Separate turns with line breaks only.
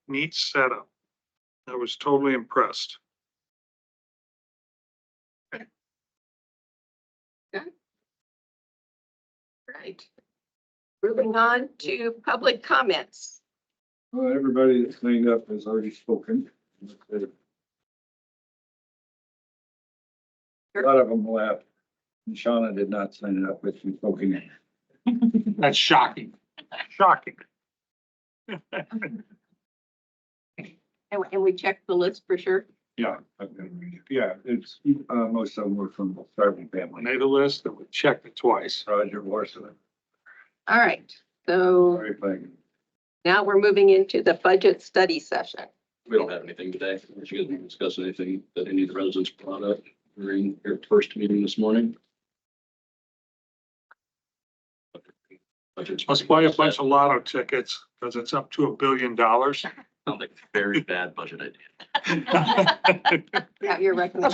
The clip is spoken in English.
neat setup. I was totally impressed.
Right. Moving on to public comments.
Well, everybody that's cleaned up has already spoken. A lot of them left. And Shauna did not sign it up with you poking it.
That's shocking.
Shocking.
And, and we checked the list for sure.
Yeah. I've been reading it. Yeah, it's, uh, most of them were from the Sargent
I
family.
made a list and we checked it twice.
Roger Warsaw.
All right. So
Sorry if I.
now we're moving into the budget study session.
We don't have anything today. She hasn't discussed anything that any of the residents brought up during your first meeting this morning. Budget's
Let's buy a bunch of lotto tickets because it's up to a billion dollars.
Sounds like a very bad budget idea.
Have your recommendation.